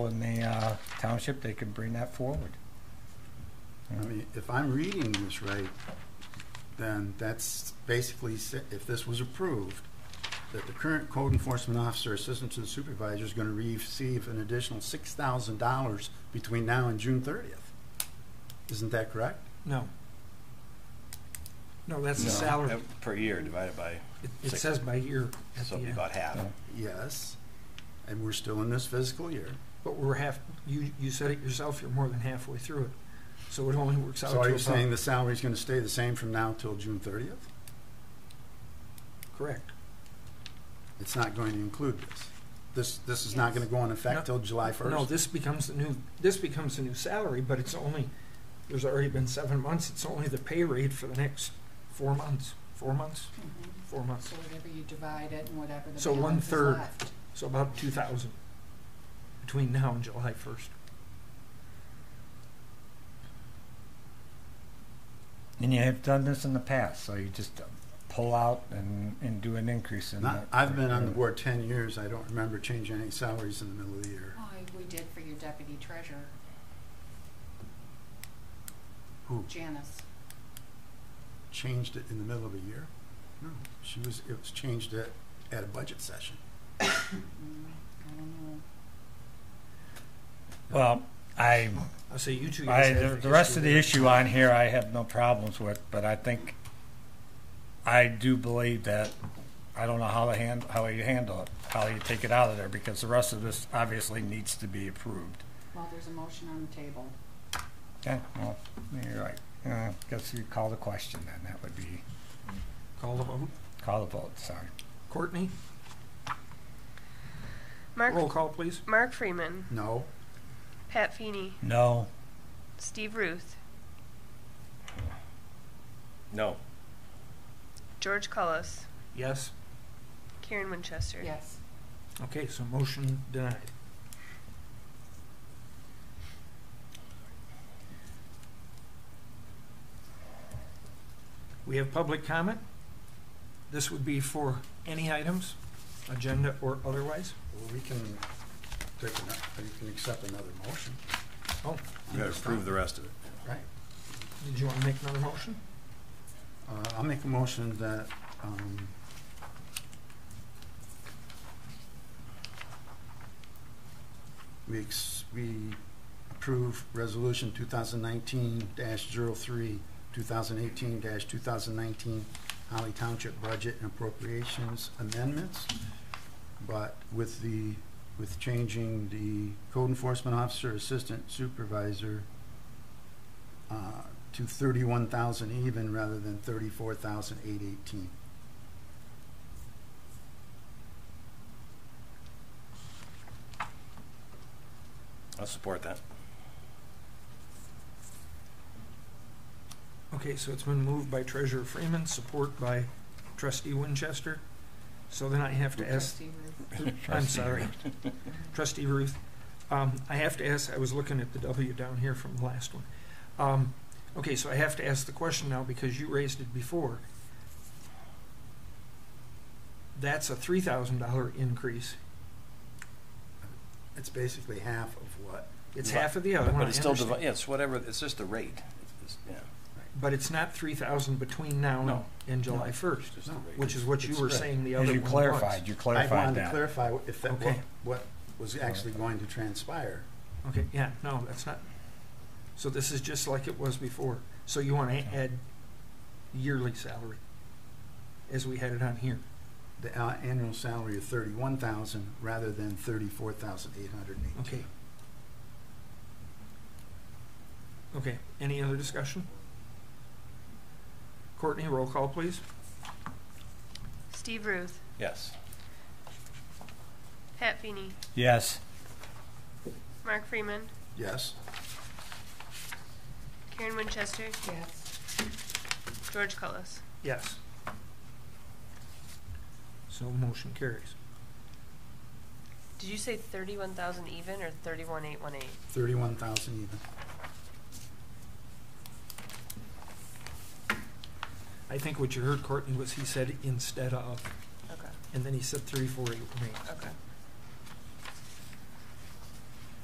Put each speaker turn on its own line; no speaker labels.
in the uh, township, they can bring that forward.
I mean, if I'm reading this right, then that's basically, sa- if this was approved, that the current code enforcement officer, assistant to the supervisor, is going to receive an additional six thousand dollars between now and June thirtieth. Isn't that correct?
No. No, that's the
No.
salary.
Per year divided by,
It- It
Six.
says by year at
so
the
it'd be
end.
about half.
Yes, and we're still in this fiscal year.
But we're half, you, you said it yourself, you're more than halfway through it. So it only works out to
So are you saying
about,
the salary's going to stay the same from now till June thirtieth?
correct.
It's not going to include this. This, this is not going to go in
No.
effect till July first?
No, this becomes the new, this becomes the new salary, but it's only, there's already been seven months, it's only the pay rate for the next four months, four months,
Mhm.
four months.
So whatever you divide it and whatever the
So one
balance is
third.
left.
So about two thousand between now and July first.
And you have done this in the past, so you just uh, pull out and, and do an increase in
Not,
that.
I've been on the board ten years, I don't remember changing any salaries in the middle of the year.
Oh, we did for your deputy treasurer.
Who?
Janice.
Changed it in the middle of a year? No, she was, it was changed at, at a budget session.
Mm, I don't know.
Well, I,
I say you two guys
I,
have
the the rest of the issue on here, I have no problems with, but I think, I do believe that, I don't know how to hand, how you handle it, how you take it out of there, because the rest of this obviously needs to be approved.
Well, there's a motion on the table.
Yeah, well, you're right. Uh, guess you call the question then, that would be,
Call the vote.
call the vote, sorry.
Courtney,
Mark
roll call, please.
Mark Freeman,
No,
Pat Feeney,
No.
Steve Ruth,
No,
George Cullis,
Yes.
Karen Winchester.
Yes.
Okay, so motion denied. We have public comment. This would be for any items, agenda or otherwise.
well, we can take, ano- we can accept another motion,
Oh,
you gotta approve the rest of it.
right?
did you want to make another motion?
Uh, I'll make a motion that, um, we ex, we approve resolution two thousand nineteen dash zero three, two thousand eighteen dash two thousand nineteen Holly Township Budget and Appropriations Amendments, but with the, with changing the code enforcement officer, assistant supervisor, uh, to thirty-one thousand even rather than thirty-four thousand eight eighteen.
I'll support that.
Okay, so it's been moved by Treasurer Freeman, support by Trustee Winchester. So then I have to ask
Trustee Ruth.
I'm sorry. Trustee Ruth, um, I have to ask, I was looking at the W down here from the last one. Um, okay, so I have to ask the question now because you raised it before. That's a three thousand dollar increase.
It's basically half of what,
It's half of the other one, I
But it's still, divi-
understand.
yeah, it's whatever, it's just the rate. It's- it's- yeah,
But it's not three thousand between now
No.
and July
No.
first,
it's just the
No,
rate.
Oh, which is what you
It's
were
spread.
saying the other
As
one
you
was.
clarified, you
I
clarified
wanted to
that.
clarify if that, what,
Okay.
what was actually going to transpire.
Okay, yeah, no, that's not, so this is just like it was before. So you want to add yearly salary as we had it on here.
The uh, annual salary of thirty-one thousand rather than thirty-four thousand eight hundred and eighteen.
Okay. Okay, any other discussion? Courtney, roll call, please.
Steve Ruth,
Yes,
Pat Feeney,
Yes.
Mark Freeman,
Yes,
Karen Winchester,
Yes.
George Cullis.
Yes. So motion carries.
Did you say thirty-one thousand even or thirty-one eight one eight?
thirty-one thousand even.
I think what you heard Courtney was he said instead of,
Okay,
and then he said three, four, eight, one, eight.
okay.